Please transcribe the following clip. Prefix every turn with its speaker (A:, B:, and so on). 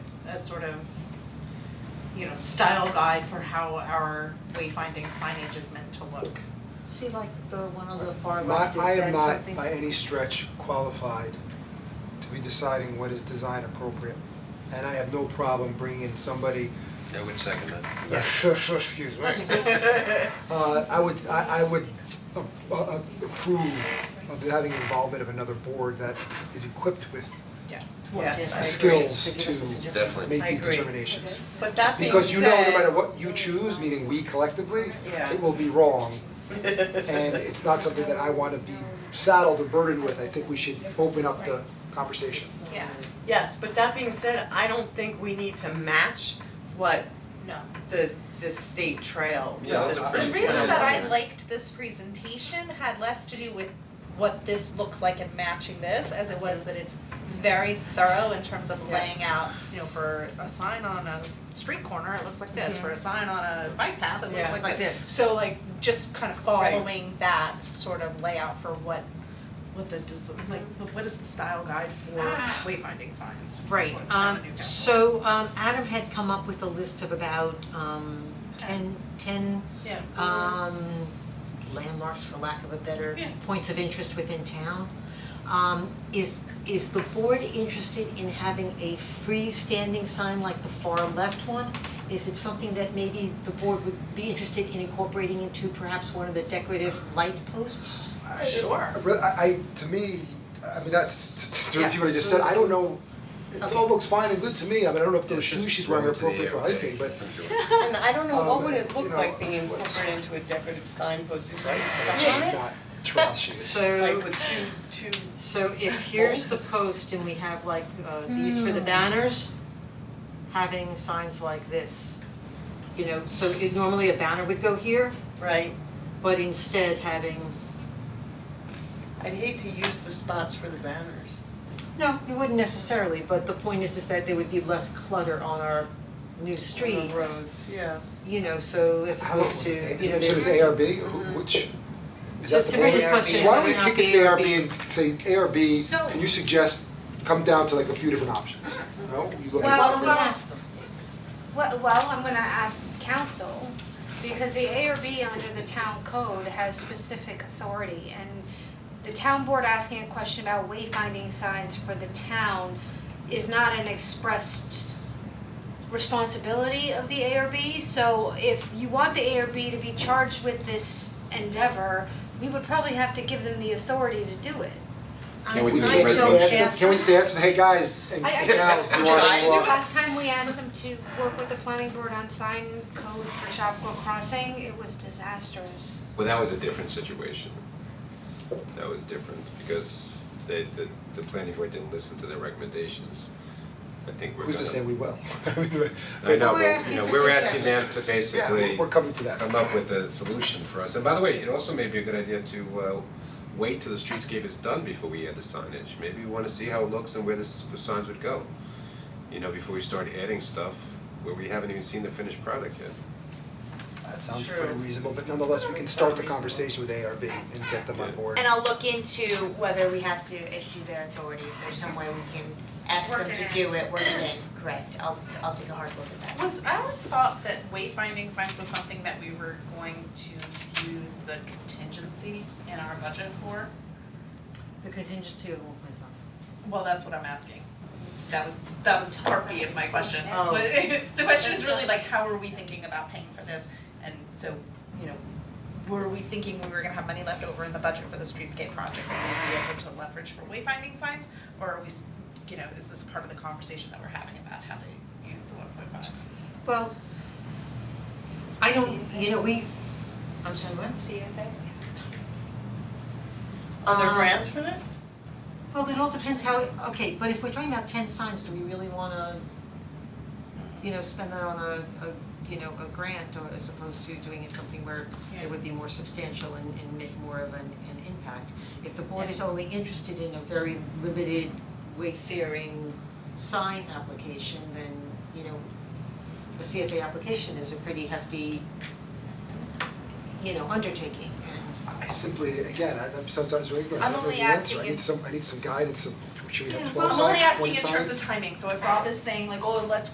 A: a sort of, you know, style guide for how our wayfinding signage is meant to look.
B: See like the one on the far
C: My,
B: left, is
C: I am
B: that
C: not
B: something?
C: by any stretch qualified to be deciding what is design appropriate. And I have no problem bringing in somebody,
D: I would second that.
C: excuse me. Uh, I would, I, I would a- a- approve of having involvement of another board that is equipped with
A: Yes.
B: Yes, I agree.
C: skills
B: So give us a
C: to
B: suggestion.
D: Definitely.
C: make
A: I
C: these
A: agree.
C: determinations.
E: But that being said.
C: Because you know, no matter what you choose, meaning we collectively,
A: Yeah.
C: it will be wrong. And it's not something that I wanna be saddled or burdened with, I think we should open up the conversation.
A: Yeah.
E: Yes, but that being said, I don't think we need to match what
A: No.
E: the, the state trail
D: Yeah, that's
E: system.
D: pretty
A: The
D: Yeah.
A: reason that I liked this presentation had less to do with what this looks like and matching this as it was that it's very thorough in terms of
E: Yeah.
A: laying out, you know, for a sign on a street corner, it looks like this, for a sign on a bike path, it looks
E: Yeah.
A: like this.
B: Like this.
A: So like just kind of
E: Right.
A: following that sort of layout for what what the des- like what is the style guide for wayfinding signs? for
F: Right,
A: the town
F: um,
A: of Newcastle?
F: so, um, Adam had come up with a list of about, um, ten, ten,
A: Yeah.
F: um, landmarks, for lack of a better,
A: Yeah.
F: points of interest within town. Um, is, is the board interested in having a freestanding sign like the far left one? Is it something that maybe the board would be interested in incorporating into perhaps one of the decorative light posts?
C: I-
A: Sure.
C: I re- I, I, to me, I mean, that's, to review what I just said, I don't know, it all
F: Okay.
C: looks fine and good to me, I mean, I don't know if those shoes she's wearing are appropriate for hiking, but
E: And I don't know, what
C: Um,
E: would it
C: you
E: look
C: know,
E: like being
C: what's-
E: incorporated into a decorative sign posted by
F: Yeah.
E: sign?
C: not trail shoes.
E: Like with two, two,
F: So if here's the post and we have like uh these for the banners, having signs like this. You know, so it normally a banner would go here,
E: right?
F: but instead having,
E: I'd hate to use the spots for the banners.
F: no, you wouldn't necessarily, but the point is is that there would be less clutter on our new
E: On the
F: streets.
E: roads, yeah.
F: You know, so as
C: How
F: opposed
C: was
F: to,
C: it,
F: you know,
C: it was
F: there's. Mm-hmm.
C: ARB, Who- which, is that
F: So
C: the
F: to Sabrina's
C: board?
F: question,
C: So why don't we
F: whether or not
C: kick it
F: the
C: to
F: ARB
C: ARB and say,
A: So-
C: ARB, can you suggest, come down to like a few different options? No, you look
F: Why
C: at
G: Well,
F: don't we
G: well,
F: ask them?
G: Well, well, I'm gonna ask council, because the ARB under the town code has specific authority, and the town board asking a question about wayfinding signs for the town is not an expressed responsibility of the ARB, so if you want the ARB to be charged with this endeavor, we would probably have to give them the authority to do it.
D: Can we do
C: We
D: a
C: can't just ask
D: resolution?
C: them, can we just ask them, hey guys, and
G: I I
C: gals,
G: just,
C: do you
G: I
C: wanna
G: tried to do
C: walk?"
G: last time we asked them to work with the planning board on sign code for Chapel Crossing, it was disastrous.
D: Well, that was a different situation. That was different because they, the, the planning board didn't listen to their recommendations. I think we're gonna.
C: Who's to say we will? I mean,
D: I know,
F: We're
D: but,
F: asking
D: you know,
F: for
D: we were asking them to
C: Yeah,
D: basically
C: we're- we're coming to that.
D: come up with a solution for us. And by the way, it also may be a good idea to, uh, wait till the streetscape is done before we add the signage. Maybe we wanna see how it looks and where the s- the signs would go. You know, before we start adding stuff where we haven't even seen the finished product yet.
C: That sounds
E: Sure.
C: pretty reasonable, but nonetheless, we can start the conversation with ARB and get them on board.
H: And I'll look into whether we have to issue their authority, if there's some way we can ask them
G: Work it
H: to do it, work it in, correct, I'll, I'll take a hard look at that.
A: Was I would thought that wayfinding signs was something that we were going to use the contingency in our budget for?
F: The contingency of one point five.
A: Well, that's what I'm asking. That was, that was part B of my question.
F: Oh.
A: The question is really like, how are we thinking about paying for this? And so, you know, were we thinking we were gonna have money left over in the budget for the streetscape project that we'd be able to leverage for wayfinding signs? Or are we, s- you know, is this part of the conversation that we're having about how to use the one point five?
F: Well, I don't, you know, we, I'm sorry, what?
G: CFA?
E: Are there
F: Um,
E: grants for this?
F: Well, it all depends how, okay, but if we're talking about ten signs, do we really wanna, you know, spend that on a, a, you know, a grant or as opposed to doing it something where
A: Yeah.
F: it would be more substantial and, and make more of an, an impact? If the board is only interested in a very limited wayfaring sign application, then, you know, a CFA application is a pretty hefty, you know, undertaking and,
C: I simply, again, I, I'm sometimes really, I
A: I'm
C: don't know
A: only
C: the answer,
A: asking
C: I need
A: if-
C: some, I need some guidance, some, should we have
F: Yeah,
C: twelve
A: I'm
C: signs,
A: only asking
C: twenty
A: in
C: signs?
A: terms of timing, so if Rob is saying like, oh, let's